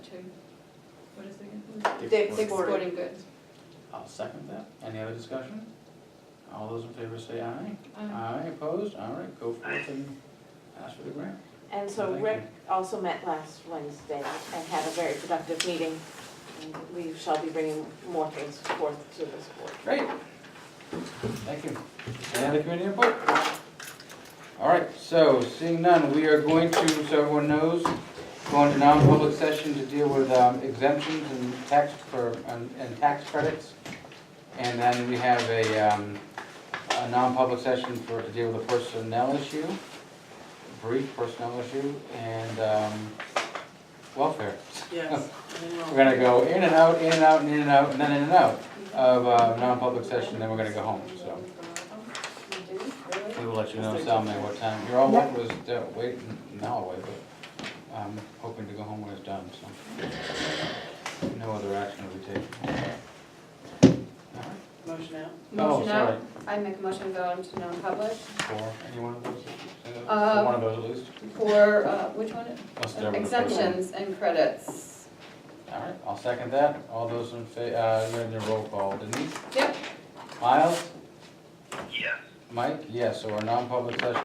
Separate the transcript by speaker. Speaker 1: to, what is it again?
Speaker 2: Dick's
Speaker 1: Dick's
Speaker 2: Sporting.
Speaker 1: Sporting Goods.
Speaker 3: I'll second that. Any other discussion? All those in favor say aye.
Speaker 1: Um,
Speaker 3: Aye, opposed? All right, go forth and ask for the grant.
Speaker 2: And so
Speaker 3: Thank
Speaker 2: Rick also met last Wednesday and had a very productive meeting. And we shall be bringing more things forth to this board.
Speaker 3: Great. Thank you. Any other community input? All right, so seeing none, we are going to, so everyone knows, go into non-public session to deal with um, exemptions and tax for, and and tax credits. And then we have a, um, a non-public session for, to deal with a personnel issue, brief personnel issue, and, um, welfare.
Speaker 4: Yes,
Speaker 3: We're gonna go in and out, in and out, and in and out, and then in and out of uh, non-public session, then we're gonna go home, so. We will let you know, Salome, what time, your all work was uh, waiting, now away, but I'm hoping to go home when it's done, so. No other action will be taken. All right.
Speaker 4: motion out.
Speaker 3: Oh,
Speaker 1: Motion
Speaker 3: sorry,
Speaker 1: out, I make a motion to go into non-public
Speaker 3: for any one of those, for
Speaker 1: Uh,
Speaker 3: one of those at least,
Speaker 1: for, uh, which one?
Speaker 3: unless Deborah. prefers one.
Speaker 1: Exemptions and credits.
Speaker 3: All right, I'll second that, all those in fa, uh, you're in the roll call, Denise?
Speaker 1: Yep,
Speaker 3: Miles? Yes. Mike, yes, so our non-public session